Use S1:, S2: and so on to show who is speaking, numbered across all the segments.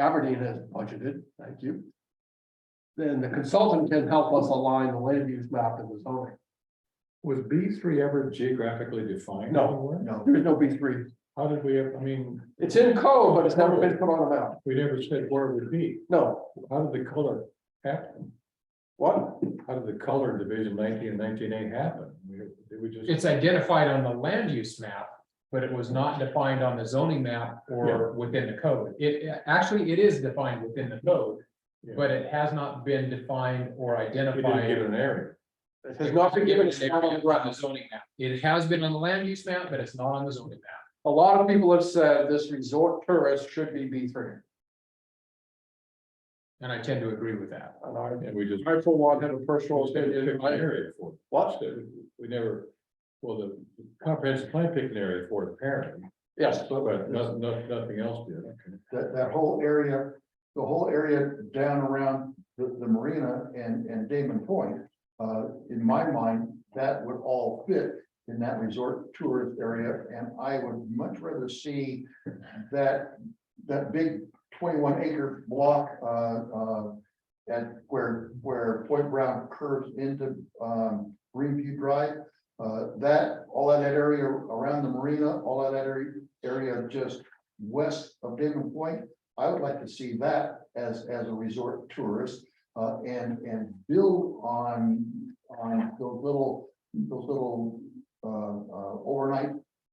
S1: Aberdeen has budgeted, thank you. Then the consultant can help us align the land use map and the zoning.
S2: Was B three ever geographically defined?
S1: No.
S2: anywhere?
S1: There is no B three.
S2: How did we, ever- I mean,
S1: It's in code, but it's never been put on a map.
S2: we never said where it would be.
S1: No,
S2: How did the color happen?
S1: what?
S2: How did the color division nineteen and nineteen A happen? We- Did we just?
S3: It's identified on the land use map, but it was not defined on the zoning map or within the code. It, actually, it is defined within the code,
S2: Yeah.
S3: but it has not been defined or
S2: We didn't give
S3: identified.
S2: an area.
S1: It has not been given.
S3: It's not on the zoning map. It has been on the land use map, but it's not on the zoning map.
S1: A lot of people have said this resort tourist should be B three.
S3: And I tend to agree with that.
S1: And I,
S2: And we just.
S1: I for one have a personal
S2: We just picked
S1: opinion.
S2: an
S1: I-
S2: area for it.
S1: What?
S2: We never, well, the comprehensive plan picked an area for it apparently,
S1: Yes,
S2: but nothing, nothing, nothing else did. Okay.
S4: that, that whole area, the whole area down around the, the marina and, and Damon Point. Uh, in my mind, that would all fit in that resort tourist area, and I would much rather see that, that big twenty-one acre block, uh, uh, at where, where Point Brown curves into, um, Greenview Drive. Uh, that, all of that area around the marina, all of that area, area just west of Damon Point. I would like to see that as, as a resort tourist, uh, and, and build on, on those little, those little, uh, uh, overnight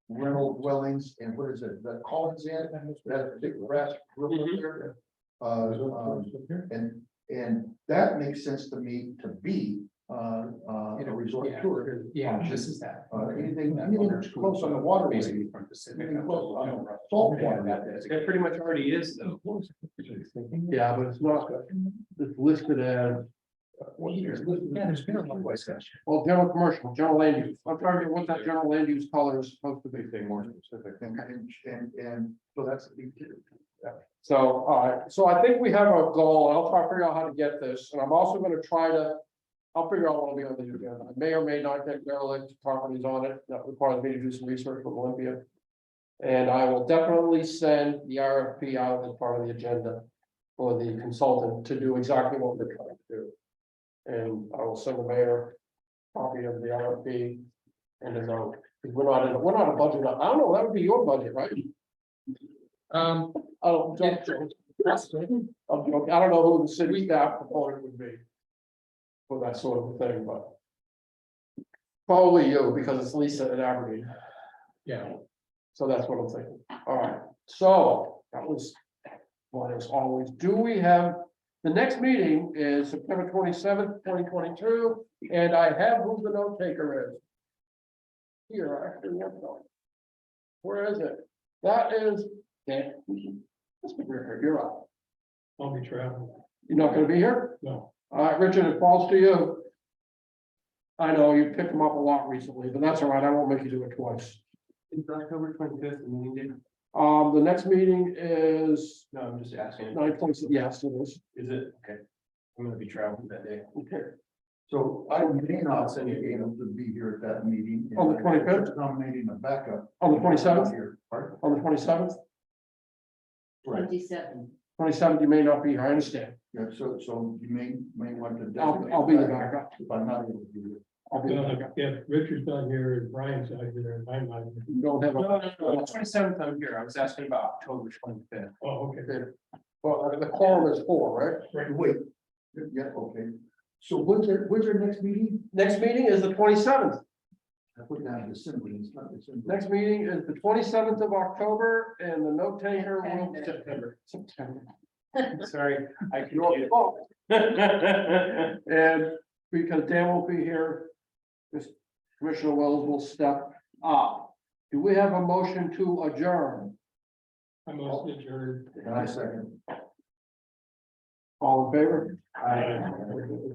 S4: rental dwellings, and what is it, the Collins Inn, that big grass
S1: Mhm.
S4: river area. Uh, um,
S2: Up here?
S4: and, and that makes sense to me to be, uh, uh, a resort
S3: Yeah.
S4: tour.
S3: Yeah, this is that.
S4: Uh, anything, anything close on the waterway,
S3: Basically from Pacific.
S4: anything close on the salt water.
S3: That
S5: pretty much already is though.
S1: yeah, but it's not, it's listed as,
S3: Yeah, there's been a lot of discussion.
S1: well, general commercial, general land use. I'm trying to, what's that general land use color is supposed to be?
S2: Anything more specific?
S4: And, and, and so that's the big two.
S1: So, all right, so I think we have a goal, and I'll try to figure out how to get this, and I'm also gonna try to. I'll figure out what will be on the agenda, I may or may not get derelict properties on it, that requires me to do some research with Olympia. And I will definitely send the RFP out as part of the agenda for the consultant to do exactly what we're trying to do. And I will send the mayor a copy of the RFP and his own, because we're not in, we're not a budget, I don't know, that would be your budget, right?
S3: Um,
S1: Oh, don't- I'm joking. I don't know who the city staff proponent would be. For that sort of thing, but. Probably you, because it's Lisa at Aberdeen,
S3: yeah.
S1: so that's what I'm thinking. All right, so that was. What is always, do we have, the next meeting is September twenty seventh, twenty twenty two, and I have who the note taker is. Here, I actually have it. Where is it? That is, Dan. That's what we're here. You're up.
S2: I'll be traveling.
S1: You're not gonna be here?
S2: No.
S1: All right, Richard, it falls to you. I know you picked them up a lot recently, but that's all right. I won't make you do it twice.
S5: Is October twenty fifth, the meeting date?
S1: Um, the next meeting is
S5: No, I'm just asking.
S1: nine points, yes, it is.
S5: Is it? Okay. I'm gonna be traveling that day.
S1: Okay,
S4: So I may not say be able to be here at that meeting.
S1: On the 25th?
S4: Nominating a backup.
S1: on the twenty seventh,
S4: Here, pardon?
S1: on the twenty seventh,
S2: Right.
S6: Twenty-seven.
S1: twenty seventh, you may not be here, I understand.
S4: Yeah, so, so you may, may want to.
S1: I'll, I'll be the backup.
S4: If I'm not able to be here.
S1: I'll be the backup.
S2: If Richard's not here and Brian's not here, in my mind.
S1: You don't have a,
S5: Twenty seventh, I'm here. I was asking about October twenty fifth.
S2: Oh, okay.
S1: well, the quorum is four, right?
S4: Wait, yeah, okay. So when's your, when's your next meeting?
S1: Next meeting is the twenty seventh.
S4: I put down December, it's not December.
S1: Next meeting is the twenty seventh of October and the note taker will. September. September.
S5: Sorry, I
S1: Your
S5: confused.
S1: fault. And because Dan won't be here, this Commissioner Wells will step up. Do we have a motion to adjourn?
S2: I'm also adjourned.
S4: And I second.
S1: All in favor?
S2: Aye.